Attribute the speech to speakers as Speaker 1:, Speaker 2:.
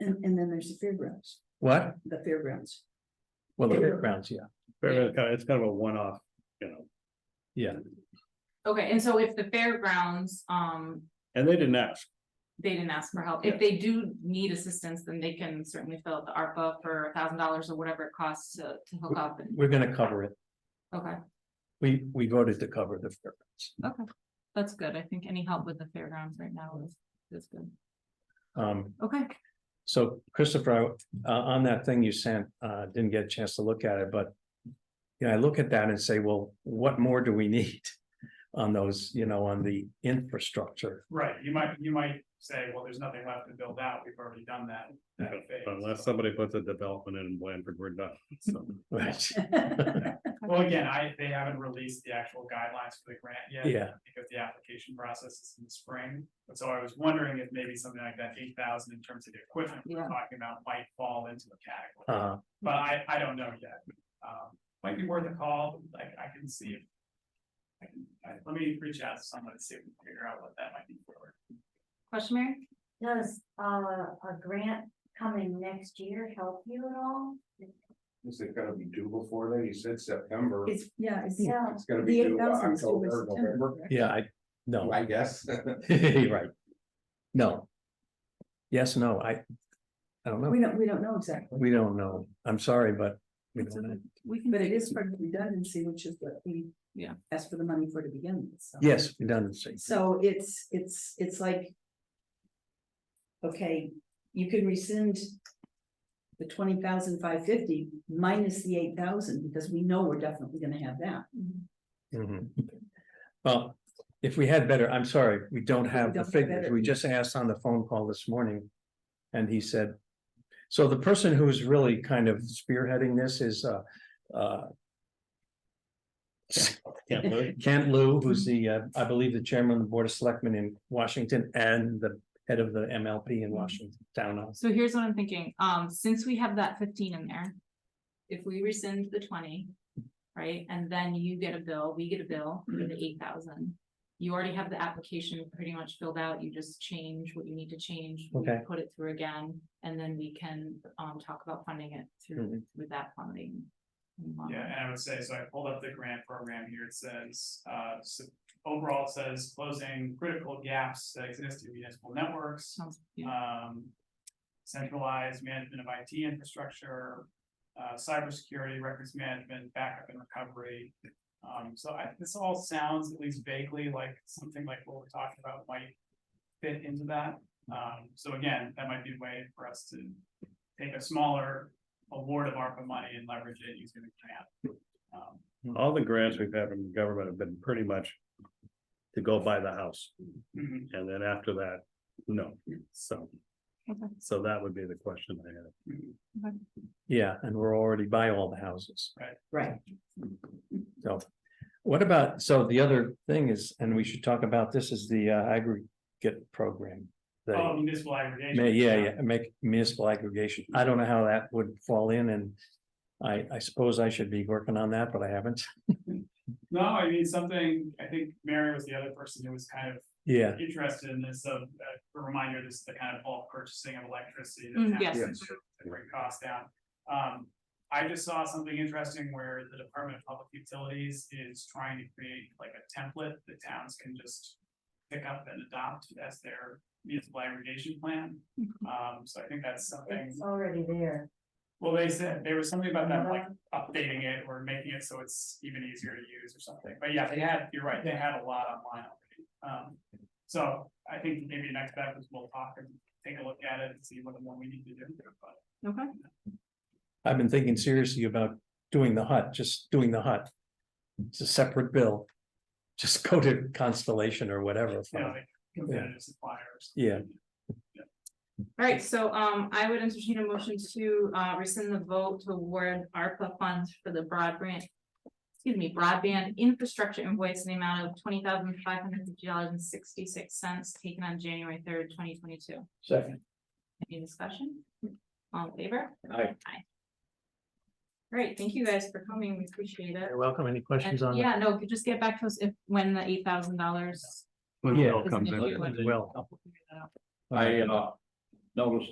Speaker 1: And, and then there's the fairgrounds,
Speaker 2: What?
Speaker 1: the fairgrounds.
Speaker 2: Well, the
Speaker 1: Yeah.
Speaker 2: fairgrounds, yeah,
Speaker 3: But it's kind of, it's kind of a one-off, you know,
Speaker 2: yeah.
Speaker 4: Okay, and so if the fairgrounds, um,
Speaker 3: and they didn't ask.
Speaker 4: they didn't ask for help,
Speaker 3: Yeah.
Speaker 4: if they do need assistance, then they can certainly fill out the ARPA for a thousand dollars or whatever it costs to, to hook up and,
Speaker 2: We're gonna cover it.
Speaker 4: okay.
Speaker 2: We, we voted to cover the fairgrounds.
Speaker 4: Okay, that's good. I think any help with the fairgrounds right now is, is good.
Speaker 2: Um,
Speaker 4: Okay,
Speaker 2: so Christopher, I- uh, on that thing you sent, uh, didn't get a chance to look at it, but. Yeah, I look at that and say, well, what more do we need? On those, you know, on the infrastructure.
Speaker 5: Right, you might, you might say, well, there's nothing left to build out, we've already done that. that phase.
Speaker 3: Unless somebody puts a development in Blandford, we're done. So,
Speaker 2: Right,
Speaker 5: Well, again, I, they haven't released the actual guidelines for the grant yet.
Speaker 2: yeah,
Speaker 5: Because the application process is in the spring, and so I was wondering if maybe something like that eight thousand in terms of the equipment we're
Speaker 4: Yeah.
Speaker 5: talking about might fall into the category.
Speaker 2: uh,
Speaker 5: But I, I don't know yet, um, might be worth a call, like, I can see if. I can, I- let me reach out to someone and see if we can figure out what that might be for.
Speaker 4: question, Mary?
Speaker 6: Does uh a grant coming next year help you at all?
Speaker 7: Is it gonna be due before then? You said September.
Speaker 1: It's, yeah, it's.
Speaker 6: Yeah.
Speaker 7: It's gonna
Speaker 1: the
Speaker 7: be due by
Speaker 1: 8,000 is due in
Speaker 7: October,
Speaker 1: September,
Speaker 7: November,
Speaker 1: correct?
Speaker 2: yeah, I, no,
Speaker 7: I guess.
Speaker 2: right. No. Yes, no, I, I don't know.
Speaker 1: We don't, we don't know exactly,
Speaker 2: We don't know. I'm sorry, but we
Speaker 4: It's
Speaker 2: don't know.
Speaker 4: okay. We can.
Speaker 1: but it is part of redundancy, which is what we.
Speaker 4: Yeah.
Speaker 1: Asked for the money for to begin with. so.
Speaker 2: Yes, redundancy.
Speaker 1: So it's, it's, it's like. Okay, you can rescind. The twenty thousand five fifty minus the eight thousand, because we know we're definitely gonna have that.
Speaker 2: Mhm. Well, if we had better, I'm sorry, we don't have the
Speaker 1: don't have
Speaker 2: figures.
Speaker 1: better.
Speaker 2: We just asked on the phone call this morning. And he said, so the person who's really kind of spearheading this is uh, uh,
Speaker 3: Can't lose.
Speaker 2: Kent Lou, who's the, uh, I believe, the chairman of the Board of Selectmen in Washington and the head of the MLP
Speaker 1: Mm-hmm.
Speaker 2: in Washington Town Hall.
Speaker 4: So here's what I'm thinking, um, since we have that fifteen in there. If we rescind the twenty, right, and then you get a bill, we get a bill for the eight thousand. You already have the application pretty much filled out, you just change what you need to change. we
Speaker 2: Okay.
Speaker 4: Put it through again, and then we can, um, talk about funding it through, with that funding.
Speaker 5: Yeah, and I would say, so I pulled up the grant program here, it says, uh, s- overall it says closing critical gaps that exist in municipal networks.
Speaker 4: Sounds, yeah,
Speaker 5: Um, centralized management of IT infrastructure, uh, cybersecurity, records management, backup and recovery. Um, so I, this all sounds at least vaguely like something like what we're talking about might fit into that. Um, so again, that might be a way for us to take a smaller award of ARPA money and leverage it using the grant. Um,
Speaker 3: All the grants we've had from government have been pretty much to go buy the house,
Speaker 5: mhm.
Speaker 3: and then after that, no, so.
Speaker 4: Okay.
Speaker 3: So that would be the question I had.
Speaker 2: Yeah, and we're already by all the houses.
Speaker 1: Right.
Speaker 2: So what about, so the other thing is, and we should talk about this, is the uh, aggregate program. the-
Speaker 5: Oh, municipal aggregation.
Speaker 2: Ma- Yeah, yeah, make municipal aggregation. I don't know how that would fall in and I, I suppose I should be working on that, but I haven't.
Speaker 5: No, I mean, something, I think Mary was the other person who was kind of
Speaker 2: Yeah,
Speaker 5: interested in this, of, uh, a reminder, this is the kind of bulk purchasing of electricity. that
Speaker 4: Mm,
Speaker 5: towns
Speaker 4: yes.
Speaker 5: can do To bring costs down. Um, I just saw something interesting where the Department of Public Utilities is trying to create like a template that towns can just pick up and adopt as their municipal aggregation plan. Um, so I think that's something,
Speaker 6: It's already there.
Speaker 5: well, they said, there was something about them like
Speaker 6: Uh,
Speaker 5: updating it or making it so it's even easier to use or something, but yeah, they had, you're right, they had a lot online already. Um, so I think maybe next step is we'll talk and take a look at it and see what the one we need to do, but.
Speaker 4: okay.
Speaker 2: I've been thinking seriously about doing the hut, just doing the hut. It's a separate bill. Just go to Constellation or whatever.
Speaker 5: You know,
Speaker 2: from-
Speaker 5: like competitive suppliers.
Speaker 2: Uh-huh. Yeah.
Speaker 4: All right, so um I would entertain a motion to uh rescind the vote to award ARPA funds for the broadband. Excuse me, broadband infrastructure invoice in the amount of twenty thousand five hundred fifty dollars and sixty-six cents taken on January third, twenty twenty-two.
Speaker 2: Second.
Speaker 4: Any discussion? All in favor?
Speaker 2: Aye.
Speaker 4: Aye. Great, thank you guys for coming. We appreciate it.
Speaker 2: You're welcome. Any
Speaker 4: And
Speaker 2: questions on?
Speaker 4: yeah, no, just get back to us if when the eight thousand dollars.
Speaker 3: When it all comes in.
Speaker 4: Thank you.
Speaker 2: Well.
Speaker 7: I, uh, noticed